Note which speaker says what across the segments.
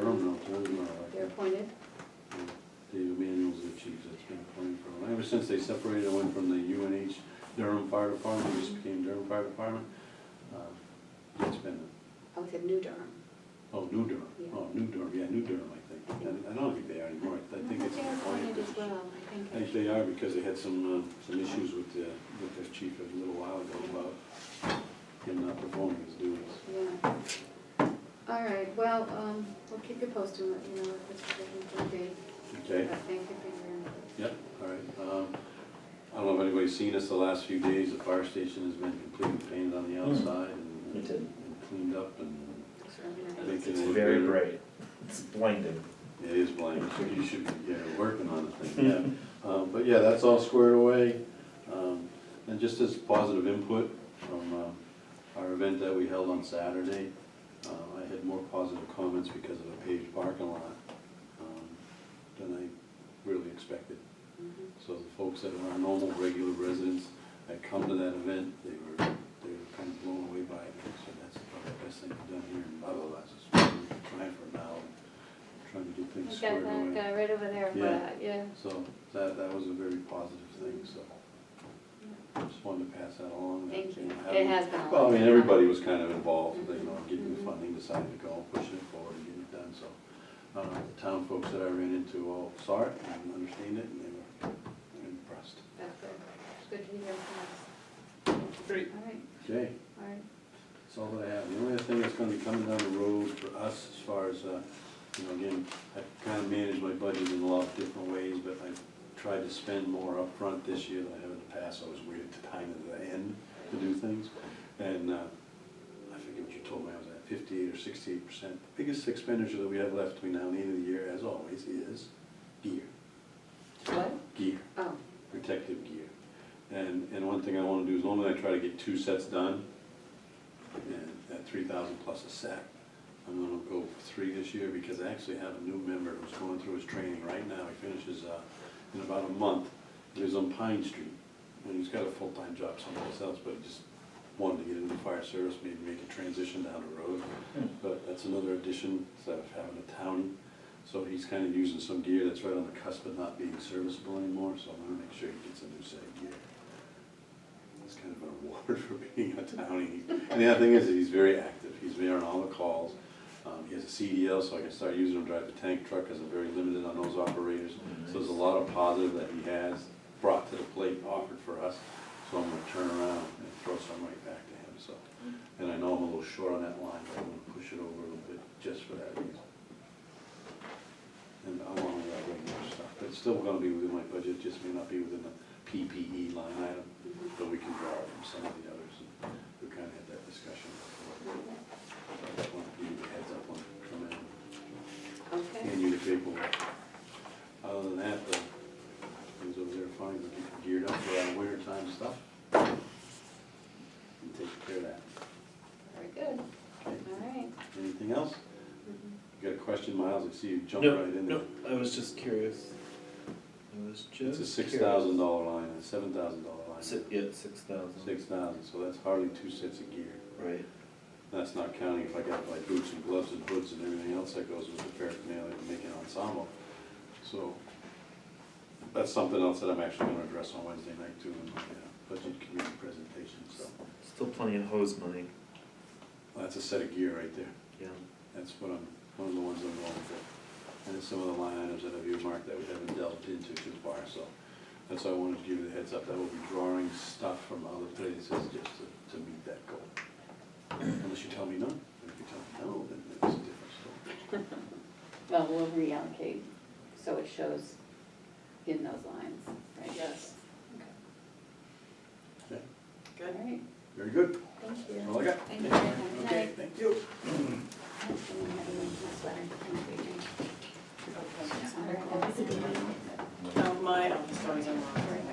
Speaker 1: done, uh,
Speaker 2: They're appointed?
Speaker 1: David Manuel's the chief that's been appointed for, ever since they separated, I went from the UNH Durham Fire Department, just
Speaker 2: Mm-hmm.
Speaker 1: became Durham Fire Department. Uh, It's been,
Speaker 2: Oh, it's in New Durham.
Speaker 1: oh, New Durham,
Speaker 2: Yeah.
Speaker 1: oh, New Durham, yeah, New Durham, I think. And I don't think they are anymore, I think it's.
Speaker 2: They're
Speaker 1: an appointed
Speaker 2: appointed as
Speaker 1: position.
Speaker 2: well, I
Speaker 1: I think
Speaker 2: think.
Speaker 1: they are, because they had some, uh, some issues with, uh, with their chief a little while ago about him not performing his duties.
Speaker 2: Yeah. All right, well, um, we'll keep you posted, and let you know if it's looking for a date.
Speaker 1: Okay?
Speaker 2: But Thank you for your input.
Speaker 1: Yep, all right. Um, I don't know if anybody's seen us the last few days, the fire station has been completely painted on the outside and
Speaker 3: It did.
Speaker 1: and cleaned up and
Speaker 2: It's really nice.
Speaker 1: making
Speaker 3: It's
Speaker 1: it
Speaker 3: very
Speaker 1: better.
Speaker 3: bright. It's blinding.
Speaker 1: It is blank, so you should be, yeah, working on the thing, yeah. Um, But yeah, that's all squared away. Um, And just as positive input from um, our event that we held on Saturday, uh, I had more positive comments because of a paved parking lot um, than I really expected.
Speaker 2: Mhm.
Speaker 1: So the folks that are our normal, regular residents that come to that event, they were, they were kind of blown away by it. So that's probably the best thing we've done here in Bubba, that's just we've been trying for now, trying to get things
Speaker 2: We've got
Speaker 1: squared
Speaker 2: that uh,
Speaker 1: away.
Speaker 2: guy right over there,
Speaker 1: Yeah.
Speaker 2: but, yeah.
Speaker 1: So that, that was a very positive thing, so I just wanted to pass that along. that,
Speaker 2: Thank you.
Speaker 1: know,
Speaker 2: It
Speaker 1: having-
Speaker 2: has been a lot.
Speaker 1: Well, I mean,
Speaker 2: of fun.
Speaker 1: everybody was kind of involved, you know, getting the
Speaker 2: Mhm.
Speaker 1: funding, deciding to go, pushing it forward and getting it done, so. uh, The town folks that I ran into all saw it and understand it, and they were impressed.
Speaker 2: That's good. It's good to hear from
Speaker 4: Great.
Speaker 2: us. All right,
Speaker 1: Okay.
Speaker 2: all right.
Speaker 1: That's all that I have. The only other thing that's gonna be coming down the road for us as far as, uh, you know, again, I kind of manage my budget in a lot of different ways, but I tried to spend more upfront this year than I have in the past. I was waiting to time at the end to do things. And, uh, I forget what you told me, I was at fifty-eight or sixty-eight percent. The Biggest expenditure that we have left between now and the end of the year, as always, is gear,
Speaker 2: What?
Speaker 1: gear
Speaker 2: Oh,
Speaker 1: protective gear. And, and one thing I wanna do is normally I try to get two sets done, and at three thousand plus a set. I'm gonna go for three this year, because I actually have a new member who's going through his training right now, he finishes, uh, in about a month. He was on Pine Street, and he's got a full-time job someplace else, but he just wanted to get into the fire service, maybe make a transition down the road.
Speaker 3: Hmm.
Speaker 1: But that's another addition, instead of having a townie, so he's kind of using some gear that's right on the cusp of not being serviceable anymore, so I'm gonna make sure he gets a new set of gear. It's kind of a reward for being a townie. And the other thing is, that he's very active, he's there on all the calls. Um, he has a CDL, so I can start using him to drive the tank truck, because I'm very limited on those operators. Mm-hmm. So there's a lot of positive that he has brought to the plate, and offered for us, so I'm gonna turn around and throw some right back to him, so. And I know I'm a little short on that line, but I'm gonna push it over a little bit just for that reason and along with that regular stuff. But it's still gonna be within my budget, just may not be within the PPE line item, but we can draw from some of the others. and We kinda had that discussion before. So I just wanna give you the heads up on coming in,
Speaker 2: okay.
Speaker 1: hand you the paperwork. Other than that, the things over there are fine, we're getting geared up for our winter time stuff. And take care of that.
Speaker 2: Very good.
Speaker 1: Okay,
Speaker 2: All right.
Speaker 1: anything else?
Speaker 2: Mhm.
Speaker 1: You got a question, Miles? I see you jumped
Speaker 3: No,
Speaker 1: right in there.
Speaker 3: no, I was just curious. I was
Speaker 1: It's
Speaker 3: just.
Speaker 1: a six
Speaker 3: curious.
Speaker 1: thousand dollar line, and a seven thousand dollar line.
Speaker 3: Si- yeah, six thousand.
Speaker 1: Six thousand, so that's hardly two sets of gear.
Speaker 3: Right.
Speaker 1: That's not counting if I got like boots and gloves and hoods and everything else that goes with the paraphernalia to make an ensemble. So that's something else that I'm actually gonna address on Wednesday night too in my uh, budget committee presentation, so.
Speaker 3: Still plenty of hose money.
Speaker 1: That's a set of gear right there.
Speaker 3: Yeah.
Speaker 1: That's what I'm, one of the ones I'm going for. And then some of the line items that I've earmarked that we haven't delved into too far, so that's why I wanted to give you the heads up, that we'll be drawing stuff from other places just to, to meet that goal. Unless you tell me no, if you tell me no, then it's a different story.
Speaker 5: Well, we'll reallocate, so it shows in those lines, right?
Speaker 4: Yes.
Speaker 1: Okay,
Speaker 5: All
Speaker 4: Good.
Speaker 5: right.
Speaker 1: Very good,
Speaker 5: Thank
Speaker 1: That's
Speaker 5: you.
Speaker 1: all I got.
Speaker 5: Thank you very much.
Speaker 1: Okay, thank you.
Speaker 5: I'm gonna have to make my sweater. Thank you.
Speaker 4: Okay.
Speaker 5: All right.
Speaker 4: Now, my, I'm sorry, I'm wrong.
Speaker 5: Perfect.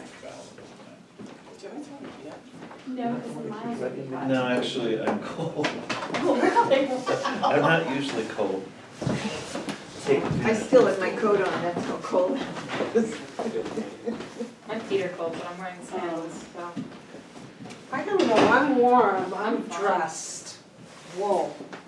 Speaker 4: Did I tell you yet?
Speaker 2: No, because mine would be hot.
Speaker 3: No, actually, I'm cold.
Speaker 6: Oh,
Speaker 3: I'm not usually cold. Take two.
Speaker 6: I still have my coat on, that's how cold it is.
Speaker 5: I'm Peter Cole, but I'm wearing sandals, so.
Speaker 4: I don't know, I'm warm, I'm dressed. Whoa. Um,